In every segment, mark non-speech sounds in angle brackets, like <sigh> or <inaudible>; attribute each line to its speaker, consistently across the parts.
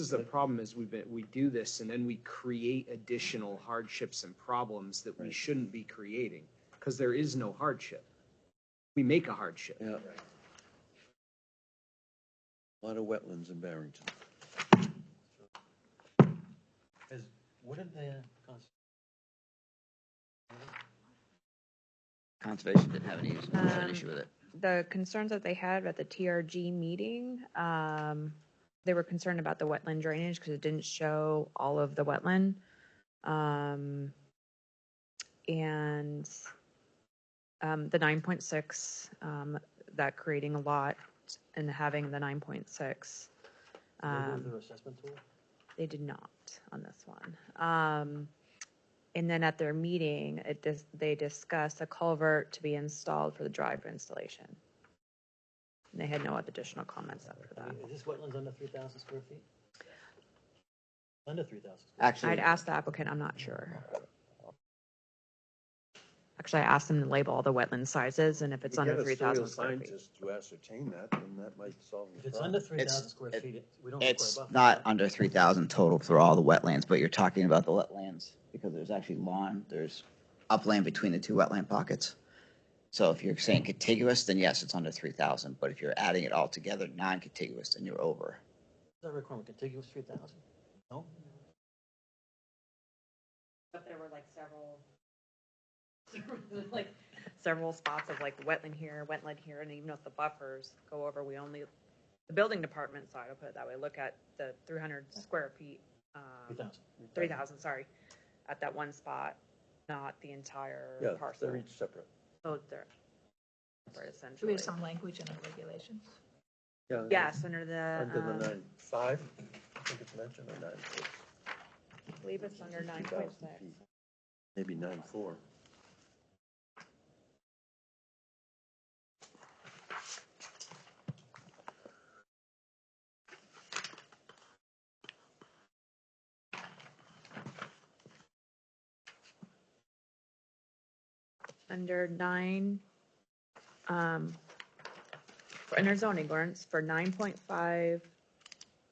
Speaker 1: This is the problem is we've been, we do this and then we create additional hardships and problems that we
Speaker 2: Right.
Speaker 1: shouldn't be creating, because there is no hardship. We make a hardship.
Speaker 2: Yeah. A Lot of wetlands in Barrington.
Speaker 3: Is, wouldn't the, cons-
Speaker 4: Conservation didn't have any, issue- had an
Speaker 5: Um,
Speaker 4: issue with it.
Speaker 5: the concerns that they had at the TRG meeting, um, they were concerned about the wetland drainage because it didn't show all of the wetland. Um, and, um, the nine point six, um, that creating a lot and having the nine point six.
Speaker 3: they do
Speaker 5: Um,
Speaker 3: their assessment tool?
Speaker 5: they did not on this one. Um, and then at their meeting, it dis- they discussed a culvert to be installed for the drive installation. And they had no additional comments after
Speaker 3: I
Speaker 5: that.
Speaker 3: mean, Is this wetlands under three thousand square feet? Under three thousand.
Speaker 4: Actually,
Speaker 5: I'd ask the applicant, I'm not sure. Actually, I asked them to label all the wetland sizes and if it's
Speaker 2: You
Speaker 5: under
Speaker 2: get a
Speaker 5: three thousand
Speaker 2: soil
Speaker 5: square feet.
Speaker 2: scientist To ascertain that, then that might solve
Speaker 3: If
Speaker 2: the
Speaker 3: it's under
Speaker 2: problem.
Speaker 3: three thousand square
Speaker 4: it-
Speaker 3: feet, it- we don't require
Speaker 4: it's
Speaker 3: buffers.
Speaker 4: not under three thousand total for all the wetlands, but you're talking about the wetlands because there's actually lawn, there's upland between the two wetland pockets. So if you're saying contiguous, then yes, it's under three thousand, but if you're adding it all together, non-contiguous, then you're over.
Speaker 3: Is that requirement contiguous three thousand? No?
Speaker 5: But there were like several, <laughs> like several spots of like wetland here, wetland here, and even if the buffers go over, we only, the building department side, I'll put it that way, look at the three hundred square feet. um,
Speaker 3: Three thousand.
Speaker 5: Three thousand, sorry, at that one spot, not the entire
Speaker 2: Yeah,
Speaker 5: parcel.
Speaker 2: they're each separate.
Speaker 5: So they're, they're
Speaker 6: Do we
Speaker 5: essentially,
Speaker 6: have some language in our regulations?
Speaker 2: Yeah,
Speaker 5: yes, under
Speaker 2: Under the
Speaker 5: the, um,
Speaker 2: nine, five, I think it's mentioned, or nine, six.
Speaker 5: I believe it's under nine
Speaker 2: 2,000
Speaker 5: point six.
Speaker 2: feet. Maybe nine, four.
Speaker 5: under nine, um, for under zoning ordinance for nine point five,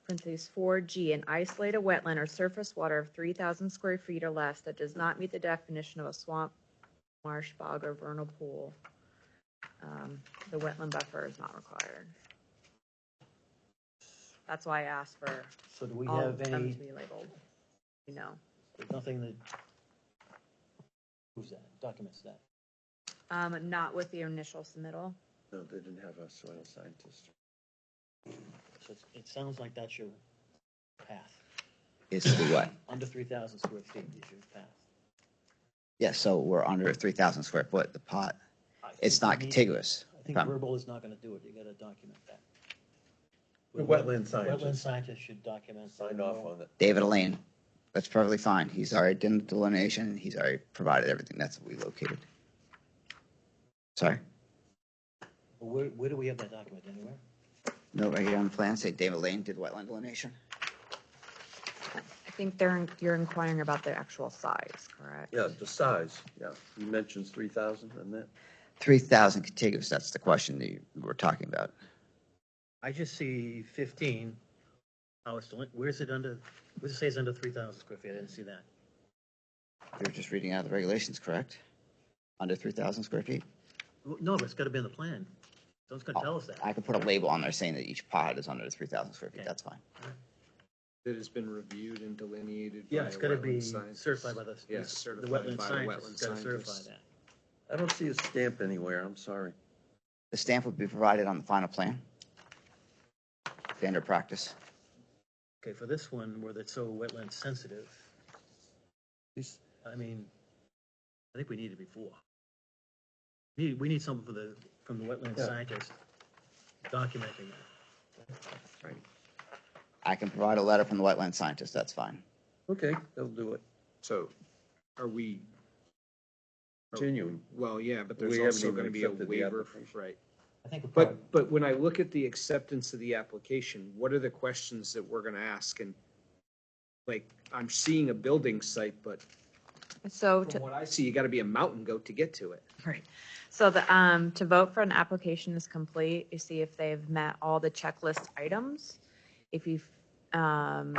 Speaker 5: parentheses four G, an isolated wetland or surface water of three thousand square feet or less that does not meet the definition of a swamp, marsh, bog, or vernal pool. Um, the wetland buffer is not required. That's why I asked for
Speaker 3: So do we
Speaker 5: all
Speaker 3: have
Speaker 5: of them
Speaker 3: any,
Speaker 5: to be labeled, you know.
Speaker 3: there's nothing that proves that, documents that?
Speaker 5: Um, not with the initial submittal.
Speaker 2: No, they didn't have a soil scientist.
Speaker 3: So it's- it sounds like that's your path.
Speaker 4: Is to be what?
Speaker 3: Under three thousand square feet is your path.
Speaker 4: Yeah, so we're under three thousand square foot, the pot.
Speaker 3: I
Speaker 4: It's
Speaker 3: think we
Speaker 4: not
Speaker 5: Mm-hmm.
Speaker 3: need-
Speaker 4: contiguous.
Speaker 3: I
Speaker 4: if
Speaker 3: think
Speaker 4: I'm-
Speaker 3: verbal is not gonna do it, you gotta document that.
Speaker 2: The wetland
Speaker 3: Wetland
Speaker 2: scientist
Speaker 3: scientist should document.
Speaker 2: signed off on it.
Speaker 4: David Elaine, that's perfectly fine. He's already done the delineation. He's already provided everything. That's what we located. Sorry.
Speaker 3: Where, where do we have that document, anywhere?
Speaker 4: No, right here on the plan, say David Lane did wetland delineation.
Speaker 5: I think they're, you're inquiring about the actual size, correct?
Speaker 2: Yeah, the size, yeah. He mentions three thousand and that.
Speaker 4: Three thousand contiguous, that's the question that you we're talking about.
Speaker 3: I just see fifteen, oh, it's, delin- where's it under, where's it say it's under three thousand square feet, I didn't see that.
Speaker 4: You're just reading out the regulations, correct? Under three thousand square feet?
Speaker 3: Well, No, but it's gotta be in the plan, someone's gonna tell us that.
Speaker 1: Oh,
Speaker 4: I could put a label on there saying that each pod is under three thousand square feet,
Speaker 3: Okay.
Speaker 4: that's fine.
Speaker 1: That has been reviewed and delineated.
Speaker 3: Yeah,
Speaker 1: by
Speaker 3: it's
Speaker 1: a
Speaker 3: gotta
Speaker 1: wetland
Speaker 3: be
Speaker 1: scientist.
Speaker 3: certified by the, the
Speaker 1: Yeah, certified
Speaker 3: wetland
Speaker 1: by the
Speaker 3: scientist, it's
Speaker 1: wetland
Speaker 3: gotta certify
Speaker 1: scientist.
Speaker 3: that.
Speaker 2: I don't see a stamp anywhere, I'm sorry.
Speaker 4: The stamp would be provided on the final plan. Standard practice.
Speaker 3: Okay, for this one, where it's so wetland sensitive,
Speaker 2: These-
Speaker 3: I mean, I think we need it before. We, we need something for the, from the wetland
Speaker 2: Yeah.
Speaker 3: scientist documenting that.
Speaker 4: I can provide a letter from the wetland scientist, that's fine.
Speaker 2: Okay, they'll do it.
Speaker 1: So are we,
Speaker 2: Genuine.
Speaker 1: well, yeah, but there's
Speaker 2: We haven't
Speaker 1: also
Speaker 2: even
Speaker 1: gonna be a
Speaker 2: accepted the
Speaker 1: waiver,
Speaker 2: application.
Speaker 1: right?
Speaker 3: I think.
Speaker 1: But, but when I look at the acceptance of the application, what are the questions that we're gonna ask? And like, I'm seeing a building site, but
Speaker 5: So
Speaker 1: from
Speaker 5: to,
Speaker 1: what I see, you gotta be a mountain goat to get to it.
Speaker 5: right. So the, um, to vote for an application is complete, you see if they've met all the checklist items. If you've, um,